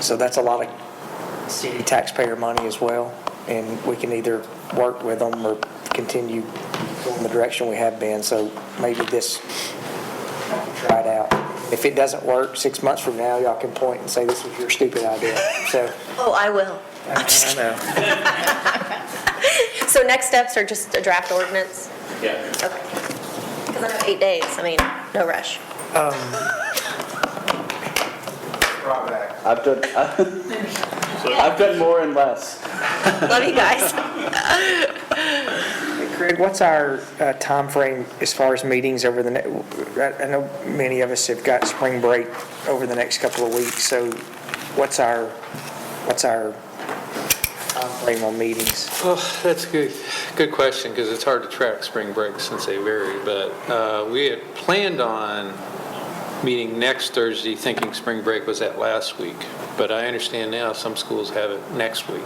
So that's a lot of city taxpayer money as well, and we can either work with them or continue in the direction we have been, so maybe this, try it out. If it doesn't work, six months from now, y'all can point and say, this was your stupid idea, so. Oh, I will. I'm just I know. kidding. So next steps are just a draft ordinance? Yeah. Okay. Because I have eight days, I mean, no rush. I've done, I've done more and less. Love you guys. Craig, what's our uh, timeframe as far as meetings over the, ne- I I know many of us have got spring break over the next couple of weeks, so what's our, what's our timeframe on meetings? Well, that's a good, good question, because it's hard to track spring break since they vary, but uh, we had planned on meeting next Thursday, thinking spring break was that last week, but I understand now some schools have it next week.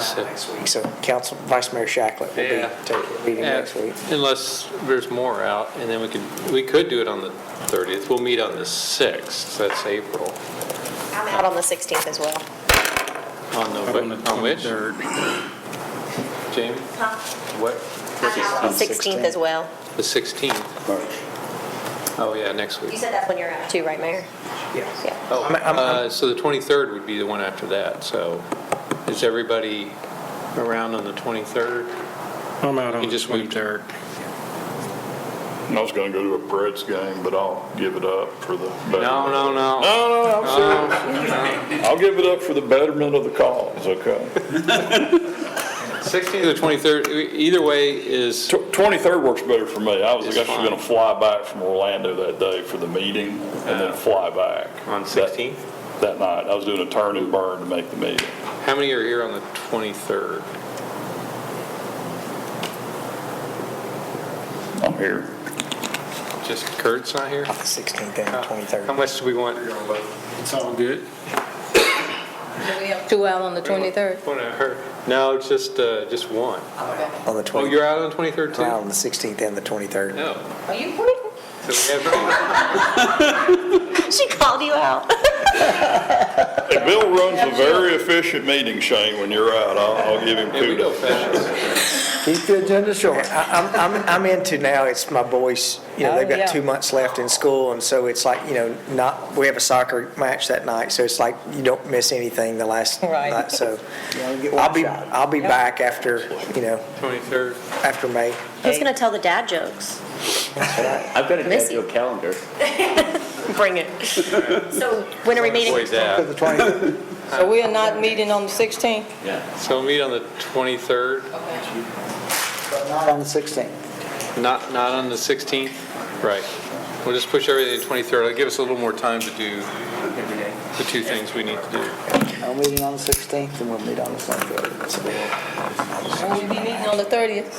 So- Next week, so Council, Vice Mayor Shacklet will Yeah. be taking meeting next Yeah, week. Unless there's more out, and then we could, we could do it on the 30th, we'll meet on the 6th, that's April, I'm out on the 16th as well. on the, on which? Jamie? What? I'm out on the 16th as well. The 16th, oh yeah, next week. You said that's when you're out too, right, Mayor? Yes. Yeah. Oh, I'm- I'm- uh, so the 23rd would be the one after that, so is everybody around on the 23rd? I'm out on You the just moved. 23rd. I was gonna go to a Preds game, but I'll give it up for the. betterment. No, no, no. No, no, no, No, I'm- I'll give it up for the betterment of the cause, okay? 16th or 23rd, e- either way is, Tw- 23rd works better for me. I was It's actually fine. gonna fly back from Orlando that day for the meeting and then fly back. Oh. On that- 16th? That night. I was doing a turn and burn to make the meeting. how many are here on the 23rd? I'm here. Just Kurt's not here? Off the 16th Uh, and 23rd. How much do we want? It's all good. Two out on the 23rd. Want to hurt? No, just, uh, just one. On the Oh, 20th, you're out on 23rd too? on the 16th and the 23rd. No. Are you So we have, She called you out. Hey, Bill runs a very efficient meeting, Shane, when you're out. I'll, I'll give him yeah, we go kudos. fast. Keep the agenda short. I'm, I'm, I'm into now, it's my boys, you know, they've Oh, yeah. got two months left in school, and so it's like, you know, not, we have a soccer match that night, so it's like, you don't miss anything the last Right. night, so. get I'll be, I'll be back after, you know, 23rd. after May. Who's going to tell the dad jokes? I've got a Missy. digital calendar. Bring it. So when are we meeting? Boys out. So we are not meeting on the 16th? Yeah. So we'll meet on the 23rd? Not on the 16th. Not, not on the 16th? Right. We'll just push everything to 23rd. It'll give us a little more time to do the two things we need to do. I'm meeting on the 16th, and we'll meet on the 23rd. And we'll be meeting on the 30th.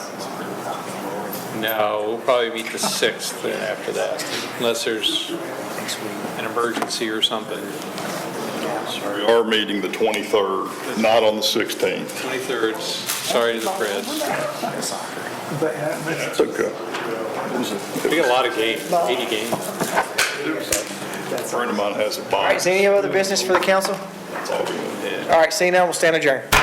No, we'll probably meet the 6th then after that, unless there's an emergency or something. We are meeting the 23rd, not on the 16th. 23rd, sorry to the Preds. That's okay. We got a lot of games, 80 games. A friend of mine has a All right, box. is there any other business for the council? That's all we need. All right, seeing none, we'll stand adjourned.